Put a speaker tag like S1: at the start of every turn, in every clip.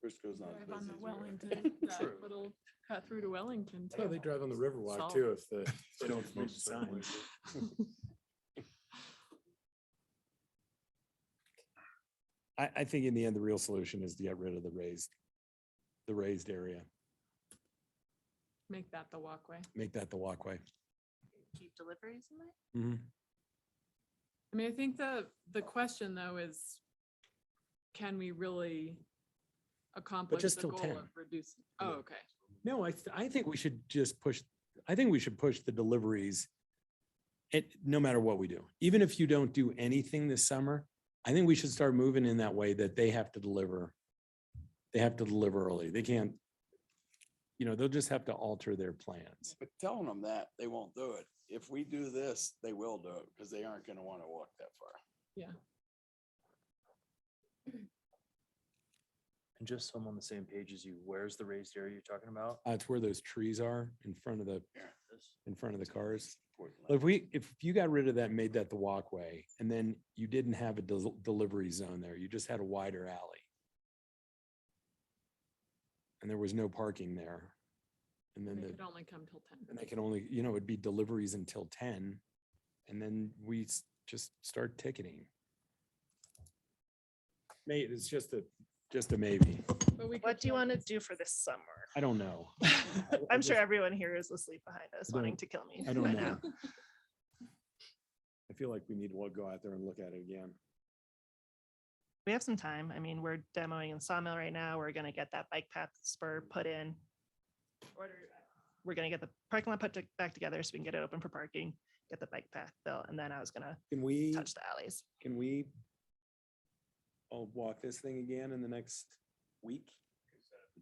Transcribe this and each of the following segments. S1: Chris goes on.
S2: Drive
S1: does
S2: on the
S1: these, right?
S2: Wellington,
S1: True.
S2: that little cut through to Wellington.
S3: Oh, they
S2: too.
S3: drive on the Riverwalk
S2: Solid.
S3: too if the.
S1: They don't read the
S3: Signs.
S1: signs.
S3: I, I think in the end, the real solution is to get rid of the raised, the raised area,
S2: Make that the walkway.
S3: make that the walkway.
S4: keep deliveries in there?
S2: I mean, I think the, the question though is, can we really accomplish
S3: just
S2: the
S3: till
S2: goal
S3: 10.
S2: of reducing? Oh,
S3: Yeah.
S2: okay.
S3: No, I, th- I think we should just push, I think we should push the deliveries. It, no matter what we do, even if you don't do anything this summer, I think we should start moving in that way that they have to deliver. They have to deliver early. They can't, you know, they'll just have to alter their plans.
S1: But telling them that, they won't do it. If we do this, they will do it because they aren't gonna want to walk that far.
S5: And just so I'm on the same page as you, where's the raised area you're talking about?
S3: Uh, it's where those trees are in front of the, in front of the cars.
S1: Portland.
S3: If we, if you got rid of that, made that the walkway, and then you didn't have a del- delivery zone there, you just had a wider alley. And there was no parking there. And then
S2: They
S3: the,
S2: could only come till
S3: and they
S2: ten.
S3: could only, you know, it'd be deliveries until ten. And then we s- just start ticketing. May, it's just a, just a maybe.
S2: But we
S4: What
S2: could
S4: do you
S2: tell-
S4: want to do for this summer?
S3: I don't know.
S4: I'm sure everyone here is asleep behind us
S3: I
S4: wanting
S3: don't-
S4: to kill me.
S3: I don't
S4: right
S3: know.
S4: now.
S3: I feel like we need to go out there and look at it again.
S4: We have some time. I mean, we're demoing in Sawmill right now. We're gonna get that bike path spur put in. Order- We're gonna get the parking lot put to- back together so we can get it open for parking, get the bike path built, and then I was gonna
S3: Can we?
S4: touch the alleys.
S3: Can we all walk this thing again in the next week?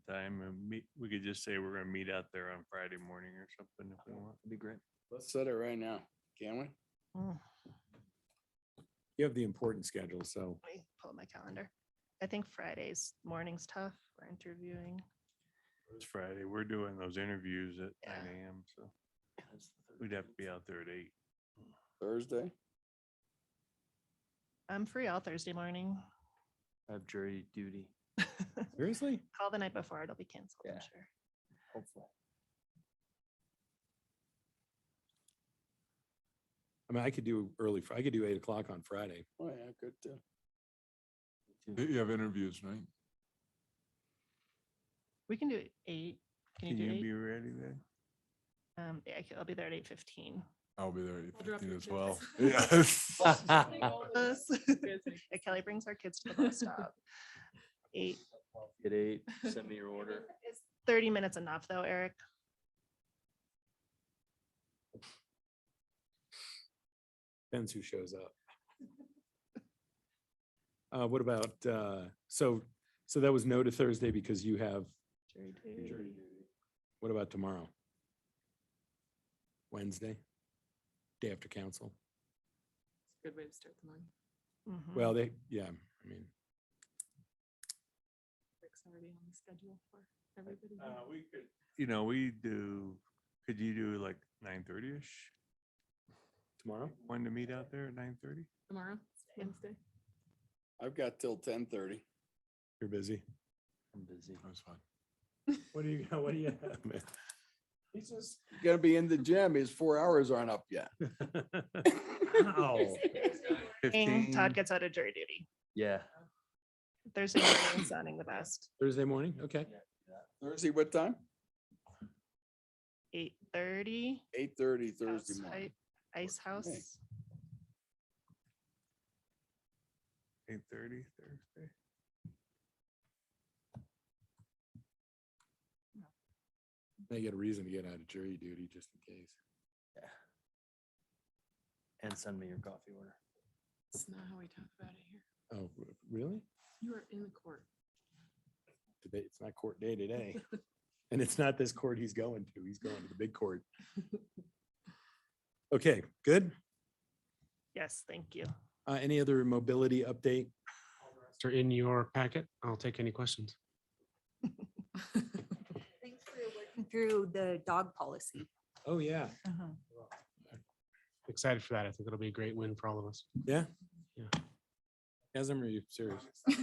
S6: the time and meet, we could just say we're gonna meet out there on Friday morning or something if we want.
S5: That'd be great.
S1: Let's set it right now, can we?
S4: Mm.
S3: You have the important schedule, so
S4: Let me pull up my calendar. I think Friday's morning's tough. We're interviewing.
S6: It's Friday. We're doing those interviews at
S4: Yeah.
S6: nine AM, so we'd have to be out there at eight.
S1: Thursday?
S4: I'm free all Thursday morning.
S5: I have jury duty.
S3: seriously?
S4: Call the night before. It'll be canceled, I'm
S5: Yeah.
S4: sure.
S5: Hopefully.
S3: I mean, I could do early, Fri- I could do eight o'clock on Friday.
S1: Oh, yeah, good too.
S7: You have interviews, right?
S4: We can do it eight. Can you
S6: Can
S4: do
S6: you
S4: eight?
S6: be ready then?
S4: Um, yeah, I c- I'll be there at eight fifteen.
S7: I'll be there at
S2: I'll
S7: eight
S2: drop
S7: fifteen
S2: your
S7: as
S2: kids.
S7: well. Yeah.
S2: Take all of us. Good thing.
S4: Kelly brings our kids to the bus stop. Eight,
S5: At eight, send me your order.
S4: thirty minutes enough though, Eric?
S3: Depends who shows up. Uh, what about, uh, so, so that was no to Thursday because you have,
S5: Jury
S3: Jury
S5: duty.
S3: what about tomorrow? Wednesday? Day after council?
S2: Good way to start the morning.
S4: Mhm.
S3: Well, they, yeah, I mean.
S2: Rick's already on the schedule for everybody. here.
S6: Uh, we could. You know, we do, could you do like nine thirty-ish?
S3: Tomorrow?
S6: Wanting to meet out there at nine thirty?
S2: Tomorrow, Wednesday.
S1: I've got till ten thirty.
S3: You're busy.
S5: I'm busy.
S7: That's fine.
S3: What do you, what do you have, man?
S1: He's just. Gonna be in the gym. His four hours aren't up yet.
S7: oh.
S5: Oh,
S3: Ow.
S4: Ding, Todd
S6: 15?
S4: gets out of jury duty.
S5: Yeah.
S4: Thursday morning sounding the best.
S3: Thursday morning? Okay.
S1: Thursday, what time?
S4: Eight thirty.
S1: Eight thirty Thursday morning.
S4: Ice
S1: Works for me.
S4: House.
S6: Eight thirty Thursday?
S3: They get a reason to get out of jury duty just in case.
S5: And send me your coffee order.
S2: It's not how we talk about it here.
S3: Oh, r- really?
S2: You are in the court.
S3: Today, it's not court day today. And it's not this court he's going to. He's going to the big court. Okay, good.
S4: Yes, thank you.
S3: Uh, any other mobility update?
S8: They're in your packet. I'll take any questions.
S9: Thanks for working through the dog policy.
S3: Oh, yeah.
S8: Excited for that. I think it'll be a great win for all of us.
S3: Yeah?
S8: Yeah.
S3: As I'm serious.